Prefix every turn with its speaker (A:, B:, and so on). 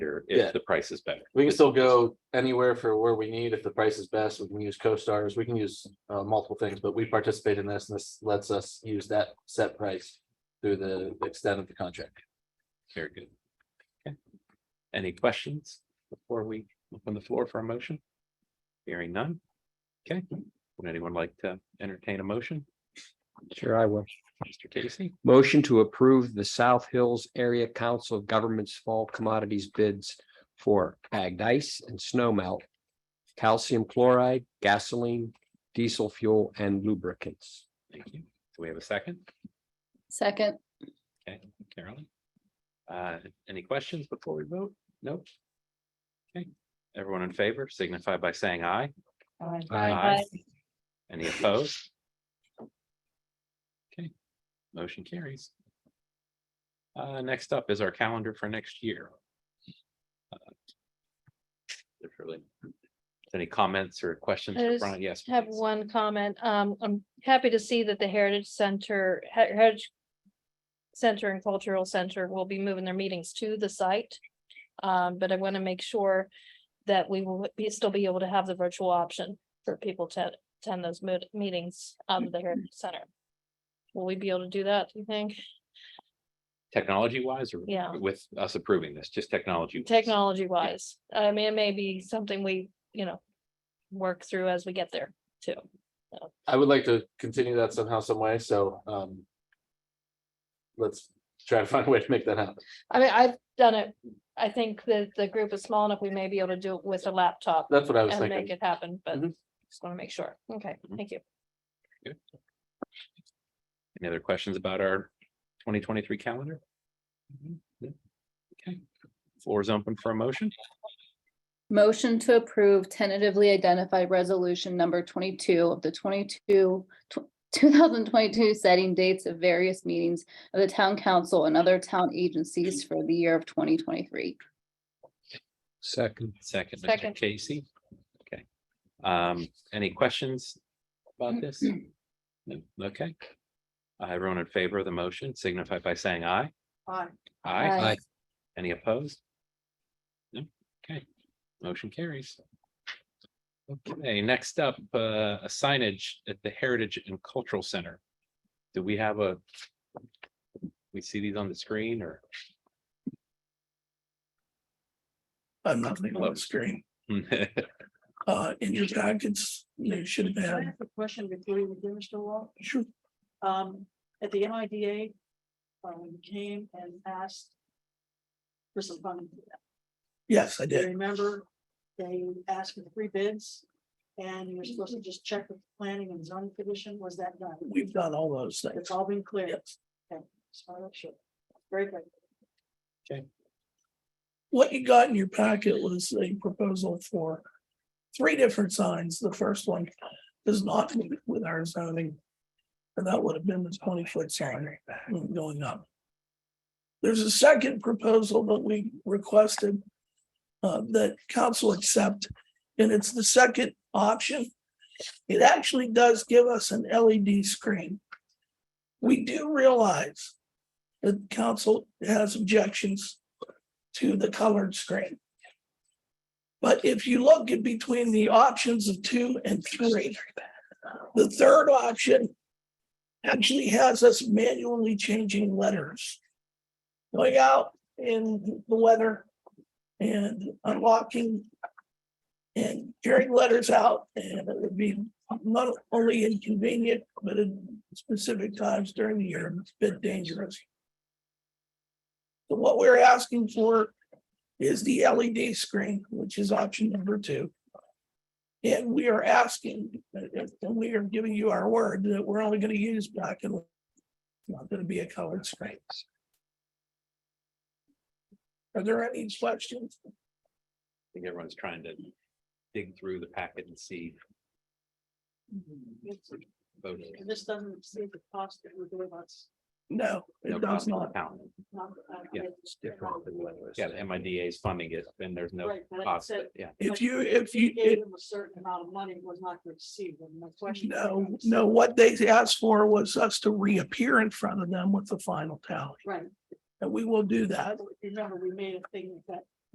A: cheaper
B: Yeah.
A: if the price is better.
B: We can still go anywhere for where we need. If the price is best, we can use co-stars, we can use uh multiple things, but we participate in this and this lets us use that set price. Through the extent of the contract.
A: Very good. Okay. Any questions before we open the floor for a motion? Hearing none. Okay, would anyone like to entertain a motion?
C: Sure, I will.
A: Mr. Casey,
C: Motion to approve the South Hills Area Council of Governments Fall Commodities bids for bagged ice and snow melt, calcium chloride, gasoline, diesel fuel, and lubricants.
A: thank you. Do we have a second?
D: Second,
A: Okay, Carolyn. Uh, any questions before we vote? Nope. Okay, everyone in favor signify by saying aye.
D: Aye.
A: Any opposed? Okay, motion carries. Uh, next up is our calendar for next year. Uh, There's really any comments or questions
E: I
A: for
E: just
A: Brian? Yes.
E: have
A: please.
E: one comment. Um, I'm happy to see that the Heritage Center, Her- Heritage Center and Cultural Center will be moving their meetings to the site. Um, but I want to make sure that we will be, still be able to have the virtual option for people to attend those mo- meetings out of the Heritage Center. Will we be able to do that, do you think?
A: Technology wise or?
E: Yeah.
A: With us approving this, just technology.
E: Technology wise, I mean, it may be something we, you know, work through as we get there too.
B: I would like to continue that somehow, some way, so um. Let's try to find a way to make that happen.
E: I mean, I've done it, I think that the group is small enough, we may be able to do it with a laptop
B: That's what I was
E: and make
B: thinking. Mm-hmm.
E: it happen, but
B: Mhm.
E: just wanna make sure, okay,
A: Mhm.
E: thank you.
A: Any other questions about our twenty twenty-three calendar? No? Okay, floor is open for a motion.
D: motion to approve tentatively identified resolution number twenty-two of the twenty-two, two thousand twenty-two setting dates of various meetings of the town council and other town agencies for the year of twenty twenty-three.
C: Second.
A: Second, Mr.
E: Second.
A: Casey. Okay. Um, any questions about this? No? Okay. Uh, Everyone in favor of the motion signify by saying aye. Aye. Aye.
C: Aye.
A: Any opposed? No? Okay. Motion carries. Okay, next up, uh, a signage at the Heritage and Cultural Center. Do we have a? We see these on the screen or?
F: I'm not leaving
A: Hello.
F: the screen. Uh, in your packets, you should have
G: Can I
F: been,
G: ask a question before you do, Mr. Wall?
F: sure,
G: Um, at the MIDA, uh, when you came and asked for some funding, for that,
F: yes, I
G: do you
F: did.
G: remember they asked for three bids? And you were supposed to just check with planning and zoning commission, was that done?
F: We've done all those things.
G: It's all been cleared.
F: Yes.
G: Okay, just wanna make sure. Very good.
F: What you got in your packet was a proposal for three different signs. The first one is not with our zoning. And that would have been the twenty foot sign going up. There's a second proposal that we requested uh, that council accept, and it's the second option. It actually does give us an LED screen. We do realize that council has objections to the colored screen. But if you look at between the options of two and three, the third option actually has us manually changing letters. Going out in the weather and unlocking and carrying letters out, and it would be not only inconvenient, but at specific times during the year, it's a bit dangerous. So What we're asking for is the LED screen, which is option number two. And we are asking, uh, and we are giving you our word that we're only gonna use black and white. It's Not gonna be a colored screen. Are there any questions?
A: I think everyone's trying to dig through the packet and see photos.
G: And this doesn't exceed the cost that we're doing us. uh,
F: No,
A: No
F: it does
A: cost to the
F: not.
A: town.
G: not- I-
A: Yeah,
B: Different than what it was.
A: Yeah, the MIDA is funding it, then there's no
G: Right, but I
A: cost,
G: said,
A: but yeah.
F: If you, if you,
G: gave
F: it-
G: them a certain amount of money was not going to receive them, my question. is,
F: no, no, what they asked for was us to reappear in front of them with the final tally.
G: Right,
F: And we will do that.
G: remember, we made a thing that